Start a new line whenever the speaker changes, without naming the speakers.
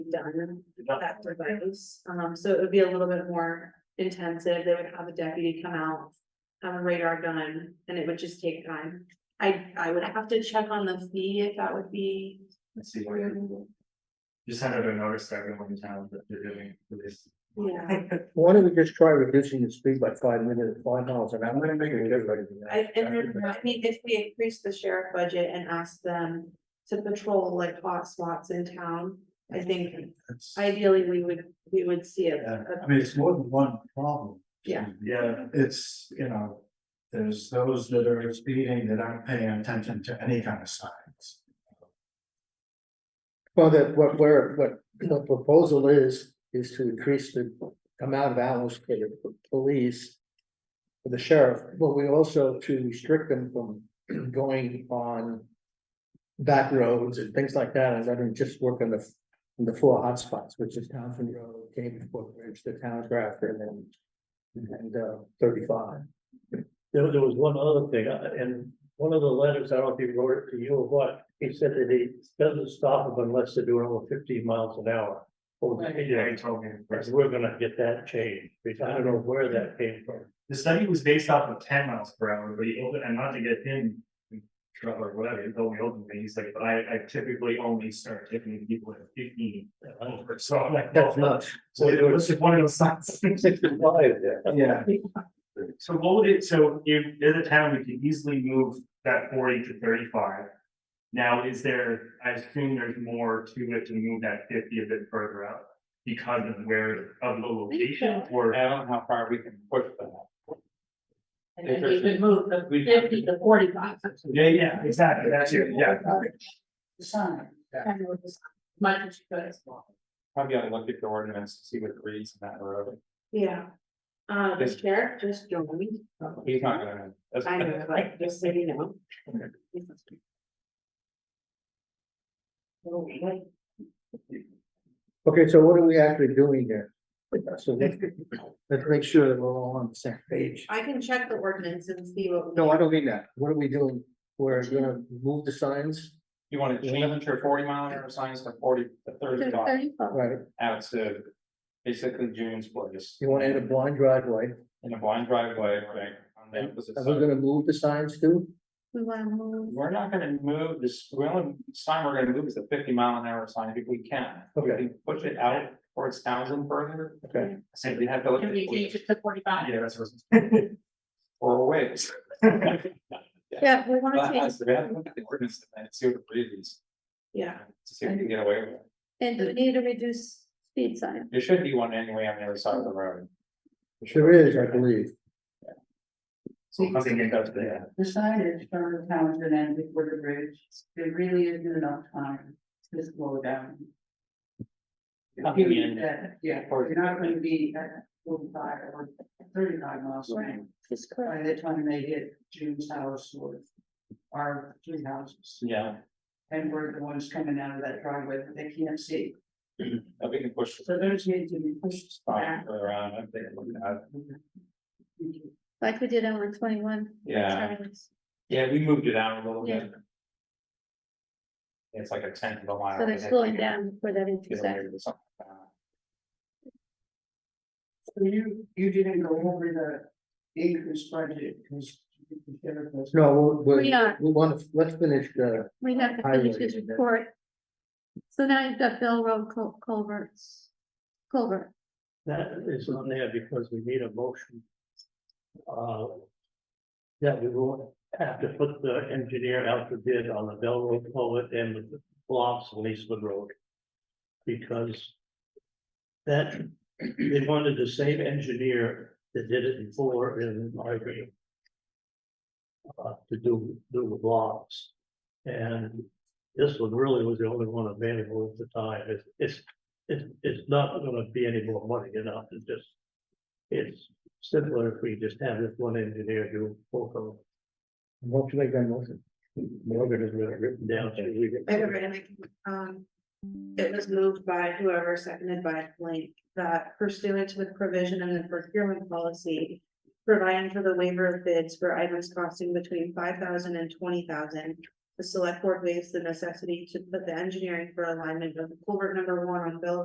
done that for those. Um, so it would be a little bit more intensive. They would have a deputy come out. Have a radar gun and it would just take time. I, I would have to check on the fee if that would be.
Let's see what you. Just send out a notice to everyone in town that they're doing for this.
Yeah,
Why don't we just try reducing the speed by five minutes, five miles an hour? I'm gonna make it everybody. do that.
I, and then, I mean, if we increase the sheriff budget and ask them to patrol like hot spots in town. I think
That's-
ideally we would, we would see it.
Yeah, I mean, it's more than one problem.
Yeah.
Yeah, it's, you know, there's those that are speeding that aren't paying attention to any kind of signs.
Well, that what we're, what the proposal is, is to increase the amount of hours for the police. For the sheriff, but we also to restrict them from going on. Back roads and things like that, and letting them just work on the, on the four hotspots, which is Townsend Road, Cambridge Brook Bridge, the town of Grafton, and. And uh, thirty-five.
There, there was one other thing, uh, and one of the letters, I don't know if he wrote it to you or what, he said that he doesn't stop them unless they're doing over fifteen miles an hour. Over the
Yeah, he
speed
told me.
limit. We're gonna get that changed, because I don't know where that came from.
The study was based off of ten miles per hour, but he opened, and not to get him. in Trouble or whatever, he told me openly, he's like, but I, I typically only start taking people at fifteen. and over." So I'm like, that's not,
much.
so it was just one of those signs.
Sixty-five there.
Yeah. So what would it, so if, as a town, we could easily move that forty to thirty-five. Now, is there, I assume there's more to it to move that fifty a bit further out because of where, of the location or?
I don't know how far we can push that.
And then we could move the fifty to forty-five.
Yeah, yeah, exactly, that's it, yeah.
Sign. And we'll just- Much as you could as well.
Probably ought to look at the ordinance, to see what it reads in that road.
Yeah. Uh, the sheriff just joined.
He's not gonna. that's-
I know, like, just so you know.
Okay, so what are we actually doing here? So let's, let's make sure that we're all on the same page.
I can check the ordinance and see what.
No, I don't mean that. What are we doing? We're gonna move the signs,
You wanna change your forty mile an hour signs to forty, to thirty-five
right?
out to basically June's place.
You wanna add a blind driveway.
In a blind driveway, right? on the opposite
Are we
side.
gonna move the signs too?
We wanna move.
We're not gonna move this, we only sign we're gonna move is the fifty mile an hour sign if we can. If
Okay.
we Push it out towards Townsend further.
Okay.
So we have to look
Can we change
at
it to forty-five?
Yeah, that's what.
four ways.
Yeah, we wanna
But
change,
as the bad, look at the ordinance and see what it reads.
yeah,
To see if you can get away with it.
And we need to reduce speed sign.
There should be one anyway on the other side of the road.
There is, I believe.
I'm thinking that's the-
The signage from Townsend and before the bridge, there really isn't enough time to slow down. That, yeah, you're not gonna be at forty-five or thirty-five miles an hour
Is
by
correct.
the time they hit June's house or our three houses.
Yeah,
And we're the ones coming out of that driveway that they can't see.
I think it pushed
So those need to be pushed back. Mm-hmm.
around, I think, it would have-
Like we did on one twenty-one.
yeah, yeah, we moved it out a little bit. It's like a tenth of a mile.
So they're slowing down for that
Get away
intersection.
with something like that.
So you, you didn't go over the increased budget because.
No, we'll- we'll-
We uh, are.
we want to, let's finish the,
We have to finish this report. So now you've got Bell Road cul- culverts. Culvert,
That is on there because we need a motion. Uh. That we will have to put the engineer out to bid on the Bell Road culvert and the blocks on Eastwood Road. Because. That, they wanted the same engineer that did it before in Margaret. Uh, to do, do the blocks. And this one really was the only one available at the time. It's, it's it's, it's not gonna be any more money, you know, it's just. It's simpler if we just have this one engineer do both of them.
what should I get motion?
Morgan has really written down. so we
I
can-
remember, and I can, um. It was moved by whoever seconded by Blake that pursuant to the provision in the procurement policy. Providing for the waiver of bids for items costing between five thousand and twenty thousand. The select board waives the necessity to put the engineering for alignment of culvert number one on Bell